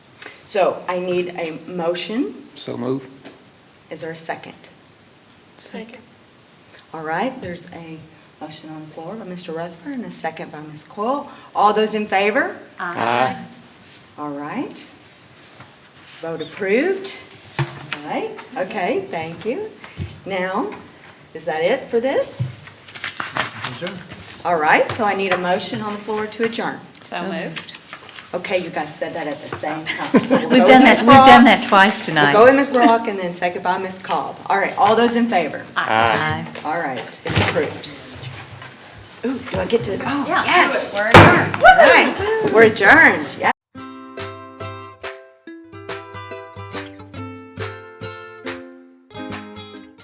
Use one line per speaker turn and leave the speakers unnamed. So I need a motion.
So move.
Is there a second?
Second.
All right, there's a motion on the floor by Mr. Rutherford and a second by Ms. Coyle. All those in favor?
Aye.
All right. Vote approved. All right, okay, thank you. Now, is that it for this? All right, so I need a motion on the floor to adjourn.
So moved.
Okay, you guys said that at the same time. So we'll go
We've
with
done
Ms.
that, we've done
Brock.
that twice
We'll
tonight.
go with Ms. Brock and then say goodbye, Ms. Cobb. All right, all those in favor?
Aye.
All right, it's approved. Ooh, do I get to, oh,
Yeah.
yes,
We're adjourned.
all right, we're adjourned, yes.